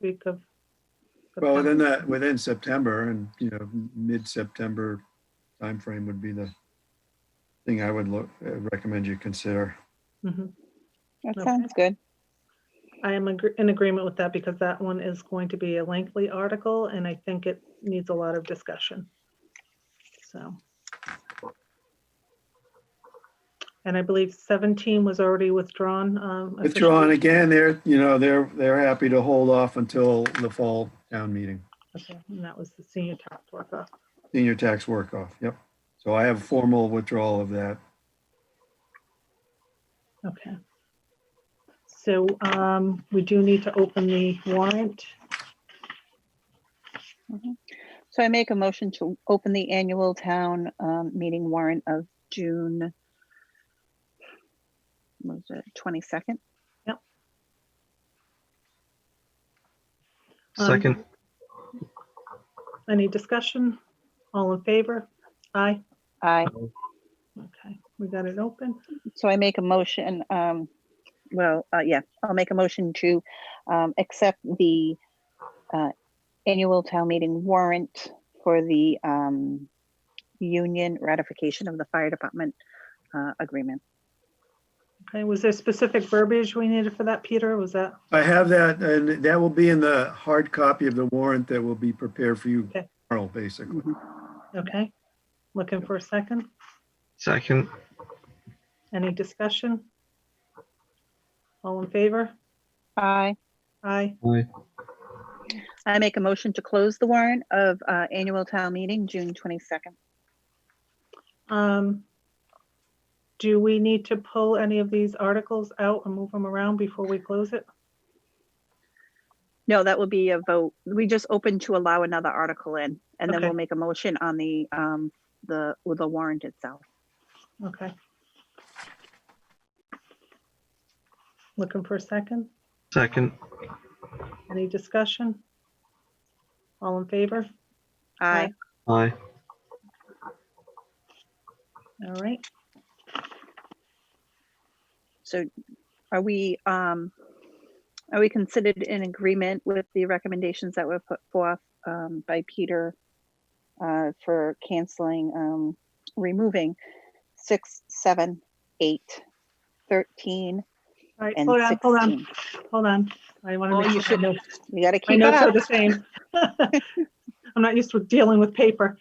week of. September. Well, within that, within September and, you know, mid-September timeframe would be the thing I would look, uh, recommend you consider. Mhm. That Okay. sounds good. I am agr- in agreement with that because that one is going to be a lengthy article and I think it needs a lot of discussion. So. And I believe 17 was already withdrawn. um, Withdrawn officially. again, they're, you know, they're, they're happy to hold off until the fall town meeting, Okay, And that was the senior tax worker. senior tax work off, yep. So I have formal withdrawal of that. Okay. So um, we do need to open the warrant. So I make a motion to open the annual town um, meeting warrant of June. what Was it twenty-second? Um, Second, Any discussion? All in favor? Aye. I, Okay, we got it open. so I make a motion, um, well, uh, yeah, I'll make a motion to um, accept the uh, annual town meeting warrant for the um, union ratification of the fire department uh, agreement. Okay, was there specific verbiage we needed for that, Peter? Was that, I have that, and that will be in the hard copy of the warrant that will be prepared for you Okay. tomorrow, basically. okay? Looking for a second? second, Any discussion? All in favor? Aye. Aye. aye, I make a motion to close the warrant of uh, annual town meeting, June twenty-second. Um, do we need to pull any of these articles out and move them around before we close it? No, that would be a vote. We just opened to allow another article in, and then Okay. we'll make a motion on the, um, the, with the warrant itself. Okay. Looking for a second? second, Any discussion? All in favor? Aye. aye, All right. So are we, um, are we considered in agreement with the recommendations that were put forth, um, by Peter uh, for canceling, um, removing six, seven, eight, thirteen, All right, and hold on, hold on, sixteen? hold on. I want to Oh, make you sure should my know. notes- You gotta my keep notes are up. the same. I'm not used to dealing with paper.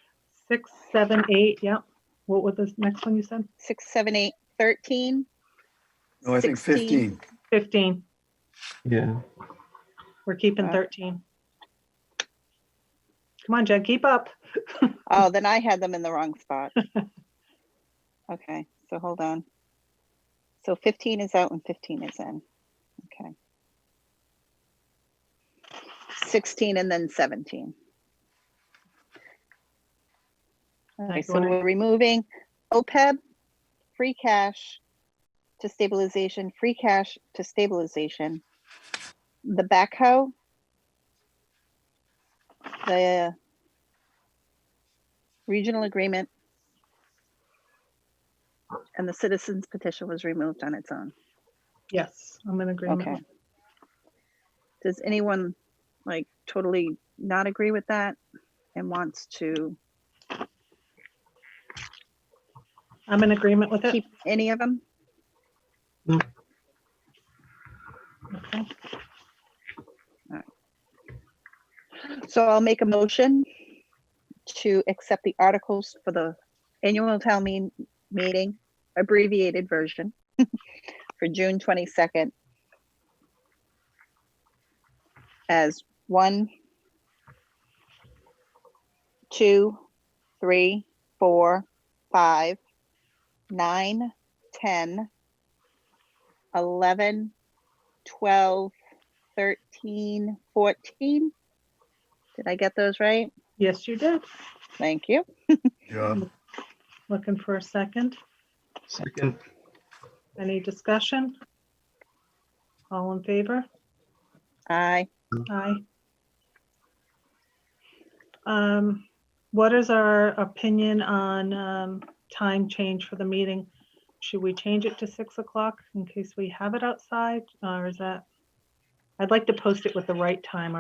Six, seven, eight, yep. What was the next one you said? Six, seven, eight, thirteen? No, I think 15. 15. yeah, We're keeping Uh, 13. Come on, Jen, keep up. Oh, then I had them in the wrong spot. Okay, so hold on. So fifteen is out and fifteen is in. Okay. Sixteen and then seventeen. Okay, Nice so one. we're removing OPEB, free cash to stabilization, free cash to stabilization. The backhoe. The regional agreement. And the citizens petition was removed on its own. Yes, I'm in Okay. agreement. Does anyone like totally not agree with that and wants to I'm in agreement with it. keep any of them? Okay. So I'll make a motion to accept the articles for the annual town mean, meeting, abbreviated version for June twenty-second as one, two, three, four, five, nine, ten, eleven, twelve, thirteen, fourteen. Did I get those right? Yes, you did. Thank you. Yeah. Looking for a second. second, Any discussion? All in favor? Aye. Aye. Um, what is our opinion on, um, time change for the meeting? Should we change it to six o'clock in case we have it outside, or is that? I'd like to post it with the right time,